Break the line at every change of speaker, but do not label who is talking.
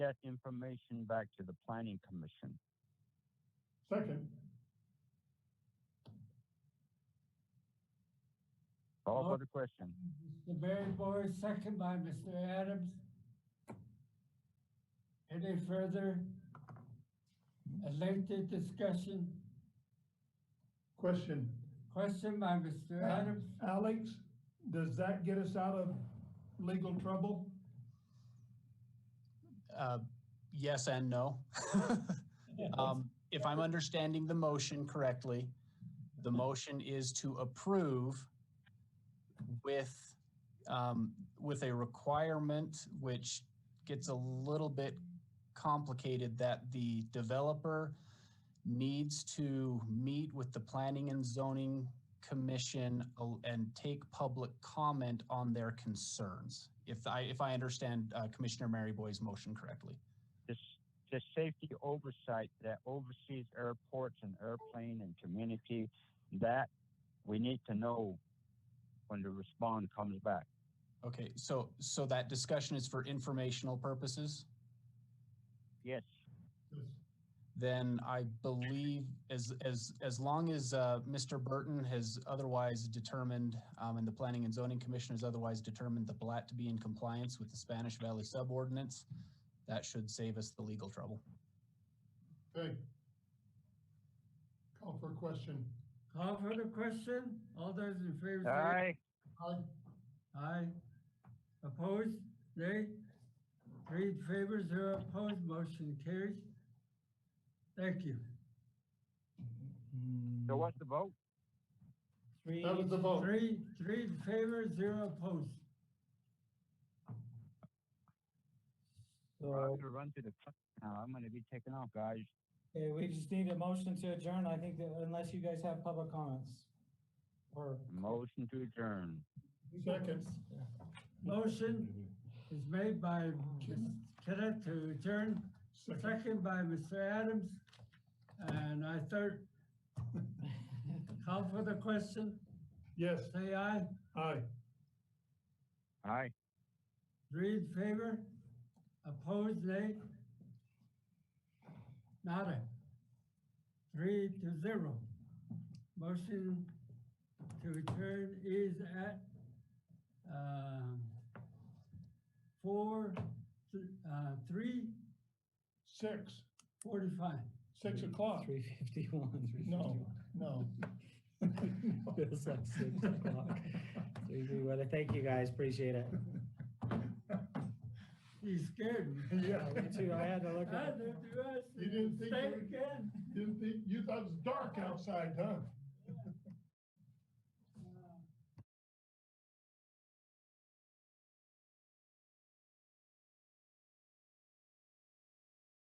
that information back to the planning commission.
Second.
Call
Oh.
for the question.
Mr. Barry Boris, second by Mr. Adams. Any further elected discussion?
Question,
Question by Mr. Adams?
Alex, does that get us out of legal trouble?
Uh, Yes and no. Um, If I'm understanding the motion correctly, the motion is to approve with, um, with a requirement which gets a little bit complicated that the developer needs to meet with the Planning and Zoning Commission uh, and take public comment on their concerns. If I, if I understand uh, Commissioner Maryboy's motion correctly.
This, the safety oversight that oversees airports and airplane and community, that we need to know when the respond comes back.
Okay, so, so that discussion is for informational purposes?
Yes,
Then I believe as, as, as long as, uh, Mr. Burton has otherwise determined, um, and the Planning and Zoning Commission has otherwise determined the plat to be in compliance with the Spanish Valley subordinates, that should save us the legal trouble.
Okay. Call for a question.
Call for the question? All those in favor say aye.
aye,
Aye. Opposed? Nay? Three in favor, zero opposed, motion carries. Thank you.
so what's the vote?
Three.
That was the vote.
Three, three in favor, zero opposed.
I'm
So,
gonna run to the, cl- now I'm gonna be taken off, guys.
okay, we just need a motion to adjourn, I think that unless you guys have public comments. Or.
Motion to adjourn.
Second.
Motion is made by Ms. Kenneth to adjourn,
Second.
second by Mr. Adams. And I third, call for the question,
Yes,
say aye,
aye.
Aye.
three in favor, opposed, nay. Nada. Three to zero. Motion to adjourn is at, um, four, th- uh, three
Six,
forty-five.
six o'clock.
Three fifty-one, three
No, no.
Feels like six o'clock. Three fifty-one, thank you guys, appreciate it.
He's scared.
Yeah.
Me too, I had to look
I
at it.
do, do I
You didn't
say
think
it
you-
again?
You, you thought it was dark outside, huh?